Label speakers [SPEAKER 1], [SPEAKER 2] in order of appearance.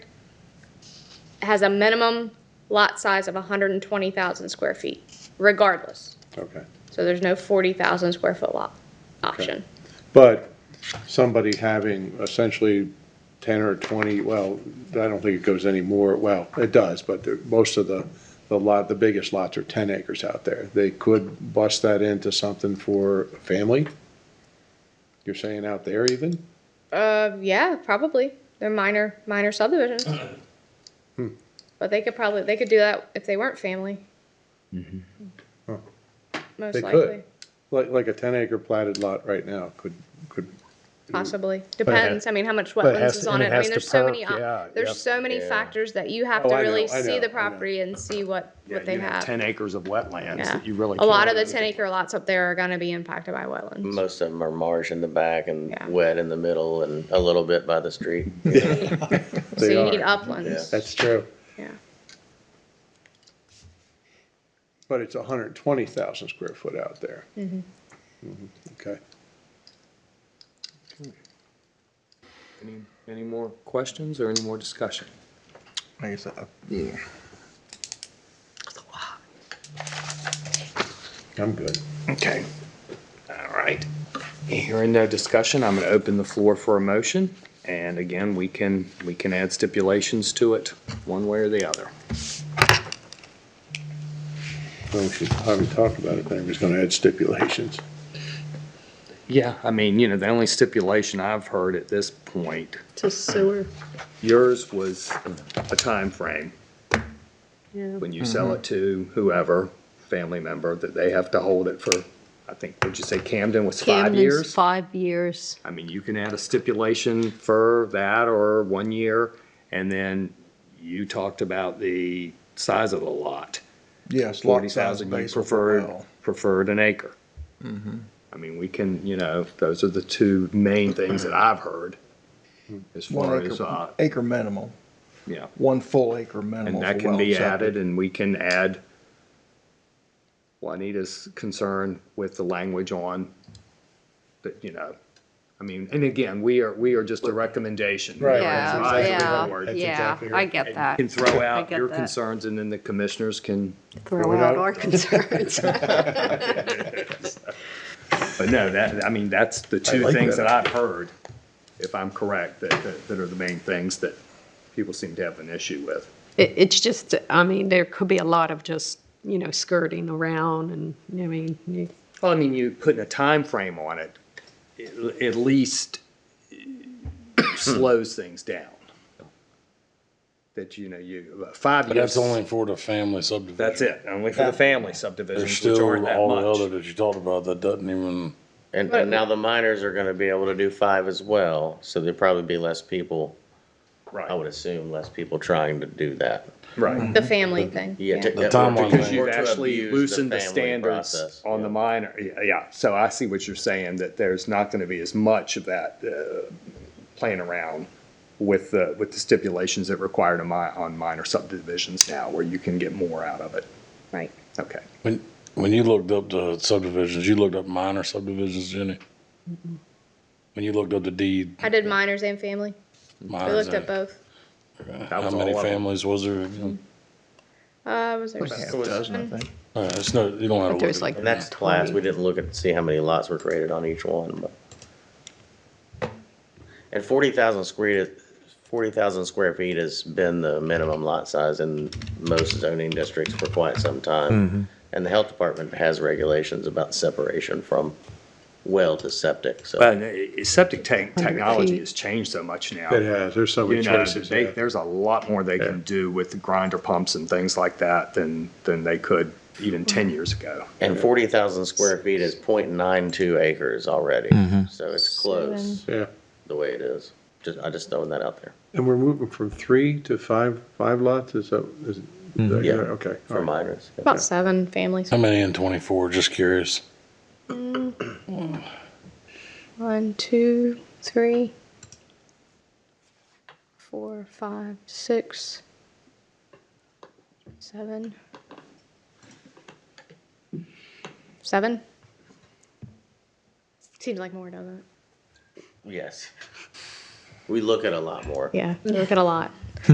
[SPEAKER 1] has a minimum lot size of 120,000 square feet, regardless.
[SPEAKER 2] Okay.
[SPEAKER 1] So there's no 40,000 square foot lot option.
[SPEAKER 2] But somebody having essentially 10 or 20, well, I don't think it goes any more. well, it does, but the- most of the, the lot, the biggest lots are 10 acres out there. They could bust that into something for a family? You're saying out there even?
[SPEAKER 1] Uh, yeah, probably. They're minor, minor subdivisions.
[SPEAKER 3] Hmm.
[SPEAKER 1] But they could probably, they could do that if they weren't family.
[SPEAKER 2] Huh.
[SPEAKER 1] Most
[SPEAKER 2] They
[SPEAKER 1] likely,
[SPEAKER 2] could. Like, like a 10 acre platted lot right now could, could,
[SPEAKER 1] possibly. Depends, I mean, how much
[SPEAKER 3] it
[SPEAKER 1] wetlands
[SPEAKER 3] has
[SPEAKER 1] is
[SPEAKER 3] to-
[SPEAKER 1] on
[SPEAKER 3] and it
[SPEAKER 1] it. I
[SPEAKER 3] has
[SPEAKER 1] mean,
[SPEAKER 3] to
[SPEAKER 1] there's so
[SPEAKER 3] perk,
[SPEAKER 1] many, op-
[SPEAKER 3] yeah, yep,
[SPEAKER 1] there's so many
[SPEAKER 3] yeah.
[SPEAKER 1] factors that you have
[SPEAKER 2] Oh,
[SPEAKER 1] to
[SPEAKER 2] I know,
[SPEAKER 1] really
[SPEAKER 2] I know,
[SPEAKER 1] see
[SPEAKER 2] I know.
[SPEAKER 1] the property and see what, what they
[SPEAKER 3] you
[SPEAKER 1] have.
[SPEAKER 3] Ten acres of wetlands
[SPEAKER 1] Yeah.
[SPEAKER 3] that you really.
[SPEAKER 1] A lot of
[SPEAKER 3] can't-
[SPEAKER 1] the ten acre lots up there are gonna be impacted by wetlands.
[SPEAKER 4] Most of them are marsh in the back and
[SPEAKER 1] Yeah.
[SPEAKER 4] wet in the middle and a little bit by the street.
[SPEAKER 1] So
[SPEAKER 2] they
[SPEAKER 1] you need
[SPEAKER 2] are.
[SPEAKER 1] uplands,
[SPEAKER 2] That's true.
[SPEAKER 1] yeah.
[SPEAKER 2] But it's 120,000 square foot out there. Mm-hmm. Okay.
[SPEAKER 5] Any, any more questions or any more discussion?
[SPEAKER 6] I guess, uh, yeah.
[SPEAKER 2] I'm good.
[SPEAKER 6] Okay.
[SPEAKER 5] All right. Hearing no discussion, I'm going to open the floor for a motion. And again, we can, we can add stipulations to it, one way or the other.
[SPEAKER 2] Well, we should probably talk about it, then we're just gonna add stipulations.
[SPEAKER 5] Yeah, I mean, you know, the only stipulation I've heard at this point,
[SPEAKER 7] to sewer,
[SPEAKER 5] yours was a time frame
[SPEAKER 7] yeah.
[SPEAKER 5] when you sell it to whoever, family member, that they have to hold it for, I think, would you say Camden was five
[SPEAKER 7] Camden's
[SPEAKER 5] years?
[SPEAKER 7] Five years.
[SPEAKER 5] I mean, you can add a stipulation for that or one year, and then you talked about the size of the lot.
[SPEAKER 6] Yes. lot
[SPEAKER 5] Forty
[SPEAKER 6] size
[SPEAKER 5] thousand, you
[SPEAKER 6] base will
[SPEAKER 5] preferred,
[SPEAKER 6] allow.
[SPEAKER 5] preferred an acre.
[SPEAKER 6] Mm-hmm.
[SPEAKER 5] I mean, we can, you know, those are the two main things that I've heard as far
[SPEAKER 6] One
[SPEAKER 5] as, uh,
[SPEAKER 6] acre, acre minimum,
[SPEAKER 5] yeah.
[SPEAKER 6] one full acre minimum.
[SPEAKER 5] And
[SPEAKER 6] for
[SPEAKER 5] that can
[SPEAKER 6] well
[SPEAKER 5] be
[SPEAKER 6] septic.
[SPEAKER 5] added, and we can add Juanita's concern with the language on, that, you know, I mean, and again, we are, we are just a recommendation.
[SPEAKER 2] Right,
[SPEAKER 7] Yeah,
[SPEAKER 5] Advisory
[SPEAKER 7] yeah,
[SPEAKER 5] board.
[SPEAKER 7] yeah, I get that.
[SPEAKER 5] Can throw out
[SPEAKER 7] get
[SPEAKER 5] your
[SPEAKER 7] that.
[SPEAKER 5] concerns, and then the commissioners can,
[SPEAKER 7] Throw
[SPEAKER 2] out.
[SPEAKER 7] out our concerns.
[SPEAKER 5] but no, that, I mean, that's the two
[SPEAKER 6] like
[SPEAKER 5] things
[SPEAKER 6] that.
[SPEAKER 5] that I've heard, if I'm correct, that, that- that are the main things that people seem to have an issue with.
[SPEAKER 7] It, it's just, I mean, there could be a lot of just, you know, skirting around and, I mean, you-
[SPEAKER 5] Well, I mean, you putting a time frame on it, it at least slows things down. That, you know, you, five years.
[SPEAKER 8] But that's only for the family subdivision.
[SPEAKER 5] That's it, only for the family
[SPEAKER 8] There's
[SPEAKER 5] subdivisions, which aren't
[SPEAKER 8] still
[SPEAKER 5] that
[SPEAKER 8] all the other
[SPEAKER 5] much.
[SPEAKER 8] that you talked about that doesn't even,
[SPEAKER 4] And, and now the miners are gonna be able to do five as well, so there'll probably be less people, I would
[SPEAKER 5] Right,
[SPEAKER 4] assume, less people trying to do that.
[SPEAKER 5] right.
[SPEAKER 1] The family thing.
[SPEAKER 4] Yeah. to-
[SPEAKER 8] The timeline
[SPEAKER 4] because
[SPEAKER 8] thing.
[SPEAKER 4] you
[SPEAKER 5] You've
[SPEAKER 4] to
[SPEAKER 5] actually
[SPEAKER 4] abuse the
[SPEAKER 5] loosened the
[SPEAKER 4] family
[SPEAKER 5] standards
[SPEAKER 4] process.
[SPEAKER 5] on the minor, yeah, yeah, so I see what you're saying, that there's not gonna be as much of that, uh, playing around with the, with the stipulations that required a mi, on minor subdivisions now, where you can get more out of it.
[SPEAKER 7] right.
[SPEAKER 5] Okay.
[SPEAKER 8] when, when you looked up the subdivisions, you looked up minor subdivisions, Jenny? When you looked up the deed.
[SPEAKER 1] I did minors and family. We
[SPEAKER 8] minors
[SPEAKER 1] looked up
[SPEAKER 8] and-
[SPEAKER 1] both. Mm-hmm.
[SPEAKER 8] How
[SPEAKER 5] was
[SPEAKER 8] many
[SPEAKER 5] all of them.
[SPEAKER 8] families was there? again?
[SPEAKER 1] Uh, was there?
[SPEAKER 6] Half dozen, I think.
[SPEAKER 8] All right, it's no, you
[SPEAKER 7] But
[SPEAKER 8] don't have to look.
[SPEAKER 7] there's
[SPEAKER 8] it up.
[SPEAKER 7] like.
[SPEAKER 4] And that's class, we didn't look at, see how many lots were created on each one, but. And forty thousand square, forty thousand square feet has been the minimum lot size in most zoning districts for quite some time. And the health department has regulations about separation from well to septic, so.
[SPEAKER 5] But uh, septic tank technology
[SPEAKER 7] feet.
[SPEAKER 5] has changed so much now.
[SPEAKER 2] It has, there's so
[SPEAKER 5] You
[SPEAKER 2] many
[SPEAKER 5] know,
[SPEAKER 2] choices.
[SPEAKER 5] they, there's a lot more they can do with grinder pumps and things like that than, than they could even ten
[SPEAKER 7] Mm-hmm.
[SPEAKER 5] years ago.
[SPEAKER 4] And forty thousand square feet is 0.92 acres already, so it's close
[SPEAKER 2] Yeah,
[SPEAKER 4] the way it is. Just, I just throwing that out there
[SPEAKER 2] and we're moving from three to five, five lots, is that, is, is that
[SPEAKER 4] Yeah.
[SPEAKER 2] correct? okay. all
[SPEAKER 4] for
[SPEAKER 2] right.
[SPEAKER 4] minors.
[SPEAKER 1] About seven families.
[SPEAKER 8] How many in twenty-four, just curious?
[SPEAKER 1] One, two, three, four, five, six, seven. Seven? Seems like more, doesn't it?
[SPEAKER 4] Yes. We look at a lot more.
[SPEAKER 1] Yeah, we look at a lot.